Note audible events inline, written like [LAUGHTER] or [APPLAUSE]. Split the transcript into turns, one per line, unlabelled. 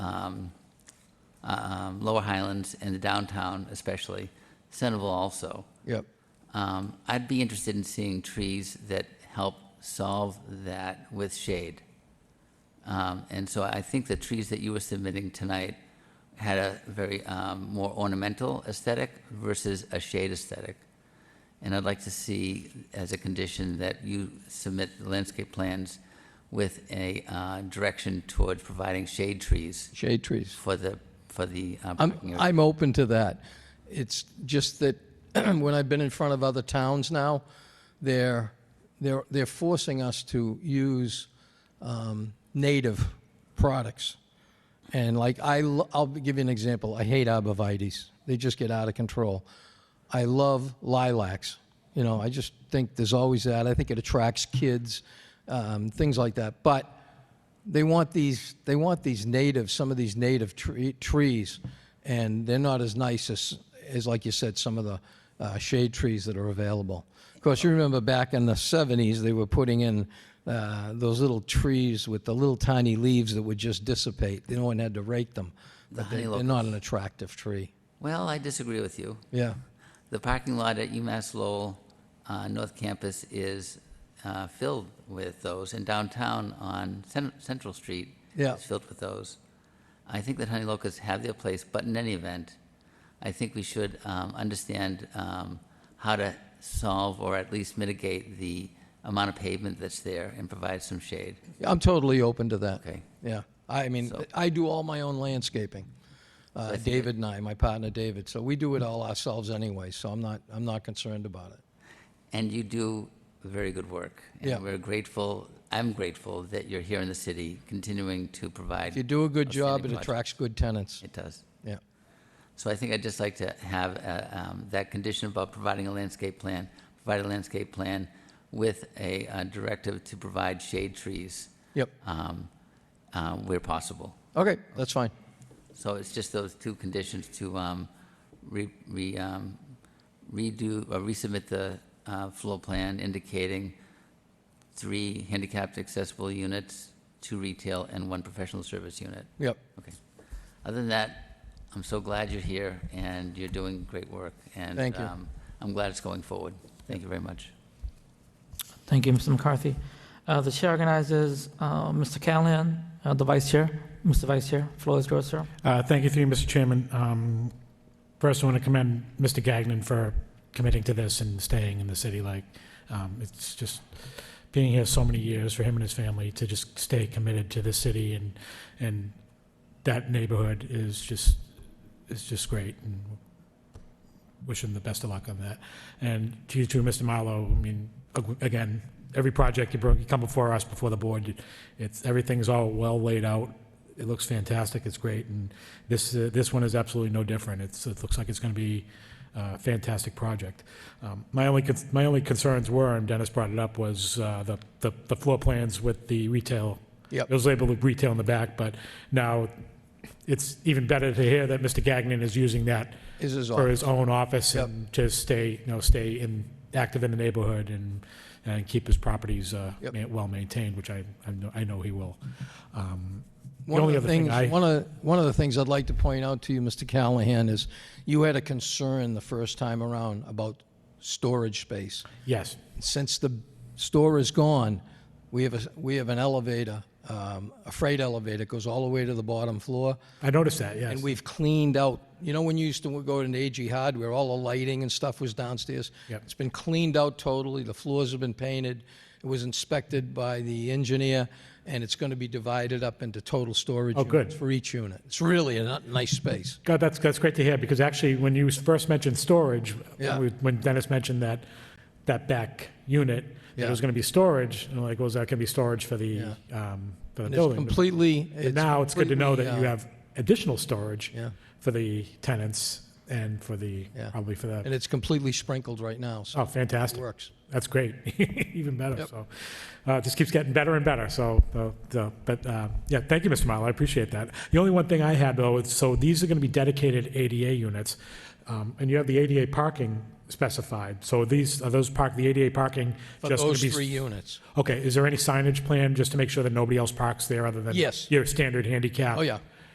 um, Lower Highlands and the downtown especially, Centerville also.
Yep.
Um, I'd be interested in seeing trees that help solve that with shade. Um, and so I think the trees that you were submitting tonight had a very um, more ornamental aesthetic versus a shade aesthetic. And I'd like to see as a condition that you submit landscape plans with a uh, direction towards providing shade trees
Shade trees.
for the for the uh, parking
I'm,
area.
I'm open to that. It's just that [CLEARS THROAT] when I've been in front of other towns now, they're, they're, they're forcing us to use um, native products. And like, I, lo- I'll give you an example. I hate arborvitae's. They just get out of control. I love lilacs. You know, I just think there's always that. I think it attracts kids, um, things like that. But they want these they want these native some of these native tre- trees and they're not as nice as as like you said some of the uh, shade trees that are available of course you remember back in the 70s they were putting in uh, those little trees with the little tiny leaves that would just dissipate no one had to rake them but they,
honeylocust.
they're not an attractive tree
well, I disagree with you.
yeah
The parking lot at UMass Lowell, uh, North Campus is uh, filled with those, and downtown on Cen- Central Street
Yeah.
is filled with those. I think that honey locusts have their place, but in any event, I think we should um, understand um, how to solve or at least mitigate the amount of pavement that's there and provide some shade.
i'm totally open to that
Okay.
yeah i mean
So-
i do all my own landscaping uh,
think it-
david and i my partner david so we do it all ourselves anyway so i'm not i'm not concerned about it
And you do very good work.
Yeah.
And we're grateful, I'm grateful that you're here in the city, continuing to provide.
If you do a good job, it
Outstanding project.
attracts good tenants.
It does.
Yeah.
So I think I'd just like to have uh, um, that condition about providing a landscape plan, provide a landscape plan with a uh, directive to provide shade trees
Yep.
um, uh, where possible.
Okay, that's fine.
So it's just those two conditions to um, re- re- um, redo, or resubmit the uh, floor plan indicating three handicapped accessible units, two retail, and one professional service unit.
Yep.
Okay. Other than that, I'm so glad you're here, and you're doing great work.
Thank you.
And um, I'm glad it's going forward. Thank you very much.
Thank you, Mr. McCarthy. Uh, The chair organizes uh, Mr. Callahan, uh, the vice chair. Mr. Vice Chair, floor is yours, sir.
Uh, Thank you, through you, Mr. Chairman. Um, First, I want to commend Mr. Gagnon for committing to this and staying in the city. Like, um, it's just being here so many years for him and his family to just stay committed to the city and, and that neighborhood is just, is just great. And Wish him the best of luck on that. And to you too, Mr. Marlowe, I mean, ag- again, every project you bring, you come before us, before the board, it's, everything's all well laid out. It looks fantastic, it's great, and this, uh, this one is absolutely no different. It's, it looks like it's gonna be uh, a fantastic project. Um, My only, cons- my only concerns were, and Dennis brought it up, was uh, the, the the floor plans with the retail.
Yep.
It was labeled retail in the back, but now it's even better to hear that Mr. Gagnon is using that
Is his
for
office.
his own office
Yep.
and to stay, you know, stay in, active in the neighborhood and, and keep his properties uh,
Yep.
ma- well-maintained, which I, I know, I know he will. Um, The
One
only
of
other
the
thing
things,
I,
one of, one of the things I'd like to point out to you, Mr. Callahan, is you had a concern the first time around about storage space.
yes,
Since the store is gone, we have a, we have an elevator, um, a freight elevator, It goes all the way to the bottom floor.
I noticed that, yes.
And we've cleaned out, you know, when you used to go to AG Hardware, all the lighting and stuff was downstairs?
Yep.
It's been cleaned out totally, the floors have been painted, it was inspected by the engineer, and it's going to be divided up into total storage
Oh, good.
units for each unit. It's really a n- nice space.
God, that's, that's great to hear, because actually, when you first mentioned storage,
Yeah.
when we- when Dennis mentioned that, that back unit, that
Yeah.
it was going to be storage, and I'm like, was that going to be storage for the, um, for the
And It's
building? But-
completely.
But now it's good to know that
completely,
you
uh,
have additional storage
Yeah.
for the tenants and for the,
Yeah.
probably for
And
the,
it's completely sprinkled right now, so
oh,
it
fantastic.
works.
That's great, [LAUGHS] even better,
Yep.
so, uh, it just keeps getting better and better, so, the- the- but, uh, yeah, thank you, Mr. Marlowe, I appreciate that. The only one thing I had, though, is, so these are gonna be dedicated ADA units, um, and you have the ADA parking specified, so these, are those park, the ADA parking
For
just gonna
those
be?
three units.
Okay, is there any signage plan, just to make sure that nobody else parks there other than?
Yes.
Your standard handicap?
Oh, yeah.